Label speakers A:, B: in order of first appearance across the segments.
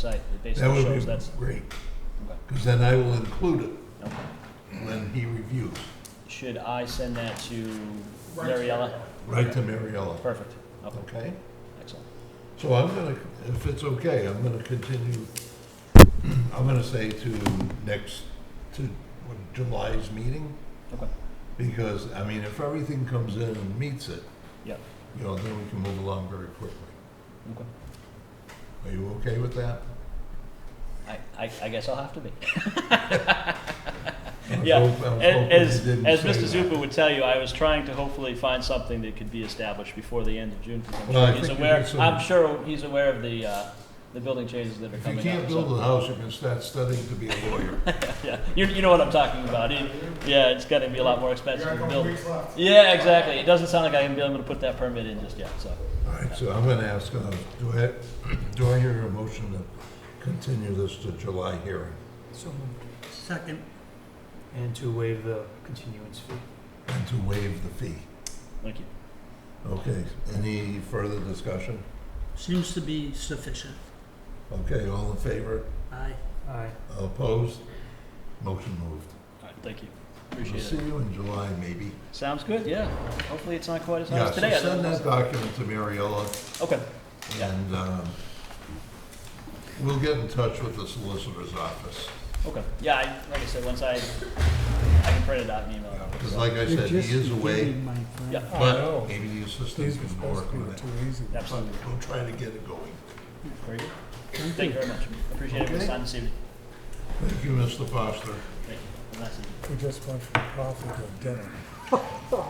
A: site, it
B: That
A: basically
B: would
A: shows
B: be
A: that's,
B: great,
A: okay,
B: because then I will include it
A: okay.
B: when he reviews,
A: Should I send that to
C: Right.
A: Mariella?
B: right to Mariella,
A: Perfect, okay,
B: okay?
A: excellent.
B: So I'm gonna, if it's okay, I'm gonna continue, I'm gonna say to next, to what, July's meeting,
A: Okay,
B: because, I mean, if everything comes in and meets it,
A: Yep.
B: you know, then we can move along very quickly.
A: okay.
B: Are you okay with that?
A: I, I, I guess I'll have to be.
B: I was
A: Yeah,
B: hope- I was hoping
A: A- As,
B: you didn't
A: as
B: say
A: Mr.
B: that.
A: Zupa would tell you, I was trying to hopefully find something that could be established before the end of June. 'cause I'm
B: Well, I
A: sure he's
B: think you
A: aware,
B: did some-
A: I'm sure he's aware of the, uh, the building changes that are
B: If you
A: coming up.
B: can't
A: so-
B: build a house, you can start studying to be a lawyer.
A: Yeah, you, you know what I'm talking about. It- yeah, it's gonna be a lot more
C: You
A: expensive
C: got a
A: to
C: couple
A: build.
C: weeks left.
A: Yeah, exactly. It doesn't sound like I'm gonna be able to put that permit in just yet, so.
B: All right, so I'm gonna ask, uh, do I, do I hear a motion to continue this to July hearing?
D: So moved. Second.
E: And to waive the continuance fee.
B: And to waive the fee.
A: Thank you.
B: Okay, any further discussion?
D: Seems to be sufficient.
B: Okay, all in favor?
D: Aye.
E: Aye.
B: Opposed? Motion moved.
A: All right, thank you.
B: We'll
A: Appreciate
B: see
A: it.
B: you in July, maybe.
A: Sounds good, yeah. Hopefully it's not quite as hot
B: Yeah,
A: as
B: so
A: today. I
B: send
A: don't
B: that
A: know.
B: document to Mariella,
A: Okay, Yeah.
B: and um, we'll get in touch with the solicitor's office.
A: okay. Yeah, I, like I said, once I, I can print it out and email it.
B: Because like I said, he is away,
A: Yeah.
C: I
B: but
C: know.
B: maybe the assistant
C: These were
B: can work
C: supposed to
B: on
C: be
B: it.
C: too easy.
B: But
A: Absolutely.
B: we'll try to get it going.
A: Very good. Thank you very much. Appreciate everyone's
B: Okay.
A: time this evening.
B: Thank you, Mr. Foster.
A: Thank you. Have a nice evening.
C: We just went from coffee to dinner.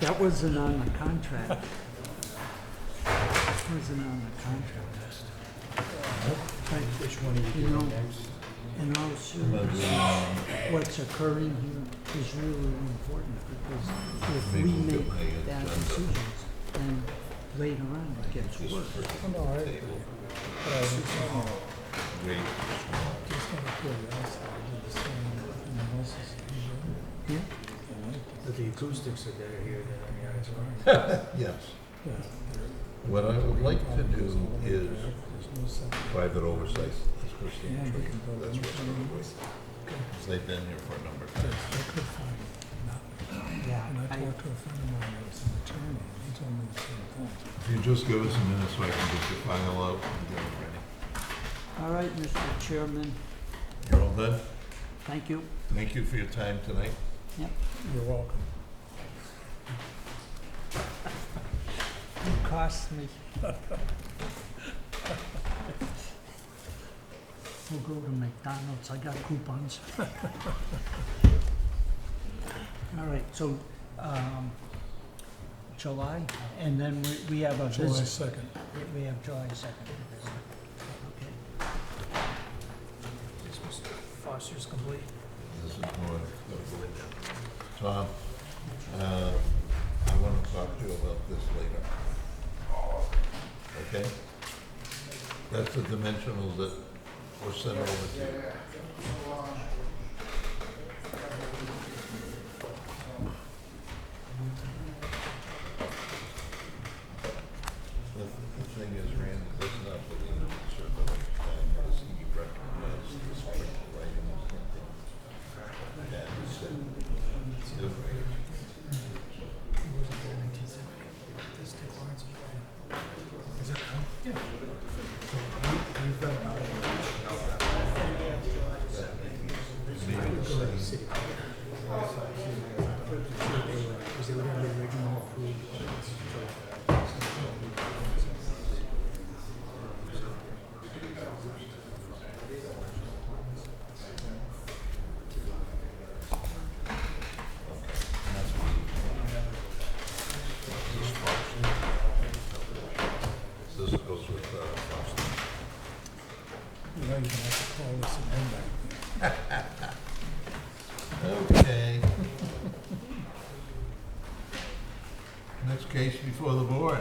D: That wasn't on the contract. Wasn't on the contract.
E: Which one are you
D: You
E: doing
D: know-
E: next?
D: And also, what's occurring here is really important because if we
B: Maybe we'll get
D: make
B: my
D: bad
B: agenda.
D: decisions, then later on it gets
B: Just
D: worse.
B: for
C: Oh, No, I agree.
B: table.
C: But I was just gonna,
B: Wait.
C: just gonna curiosity, I did the same in the houses.
D: Yeah?
C: Hmm?
E: But the acoustics are better here than on the outside.
B: Yes. What I would like to do is private oversight. That's Christine
C: Yeah, we
B: Tree.
C: can go
B: That's
C: look
B: what's
C: at
B: going
C: this.
B: Because they've been here for a number of times.
C: I could find nothing.
D: Yeah.
C: And I
D: I-
C: talked to a friend of mine that was an attorney, and he told me the same thing.
B: If you just give us a minute so I can get your file out and get it ready.
D: All right, Mr. Chairman,
B: You're all done?
D: thank you.
B: Thank you for your time tonight.
C: You're welcome.
D: You cost me. We'll go to McDonald's, I got coupons. All right, so, um, July, and then we, we have a
C: July
D: visit,
C: second.
D: we have July second.
E: Is Mr. Foster's complete?
B: This is more, Tom, uh, I want to talk to you about this later. Okay? That's the dimensionals that were sent over to you. The the thing is, Randy, that's not the legal survey, and this he recognized this print writing is something that is said. This goes with, uh, Boston.
C: You know, you're gonna have to call this an index.
B: Okay. Next case before the board.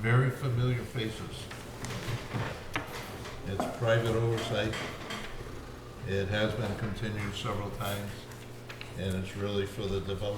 B: Very familiar faces. It's private oversight. It has been continued several times. and it's really for the development